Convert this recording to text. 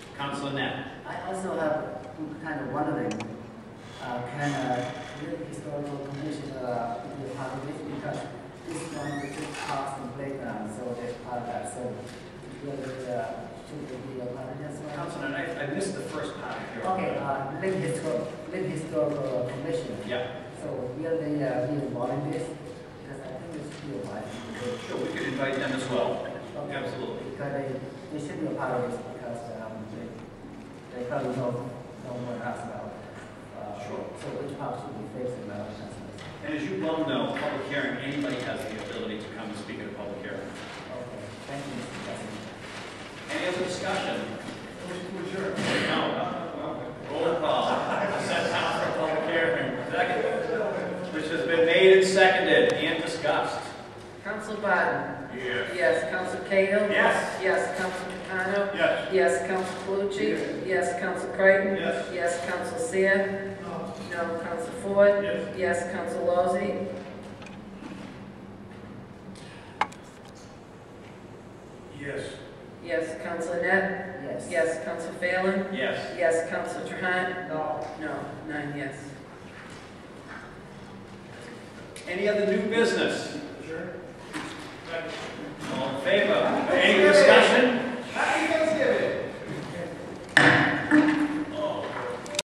Counselor Net. I also have kind of wondering, uh, can a real historical commission, uh, be a part of this? Because this is one of the big parks and playgrounds, so it's part of that, so whether, uh, should it be a part of this one? Counselor Net, I I missed the first part of your. Okay, uh, Lake Historical, Lake Historical Commission. Yeah, So will they, uh, be involved in this? Because I think it's still wise. sure, we could invite them as well. Absolutely. Because they, they should be a part of this because, um, they, they probably know, know more than us about. uh, Sure. So which house should be facing about us? And as you well know, public hearing, anybody has the ability to come and speak at a public hearing. Okay, thank you, Mr. President. Any other discussion? No, uh, well, roll call. Set time for public hearing. Second. Which has been made and seconded and discussed. Council Biden. Yes. Yes, Council Cahill. Yes. Yes, Council Capano. Yes. Yes, Council Calucci. Yes, Council Creighton. Yes. Yes, Council Seer. No. No, Council Ford. Yes. Yes, Council Lozey. Yes. Yes, Counsel Net. Yes. Yes, Counsel Phelan. Yes. Yes, Counsel Trahan. No. No, nine yes. Any other new business? Sure.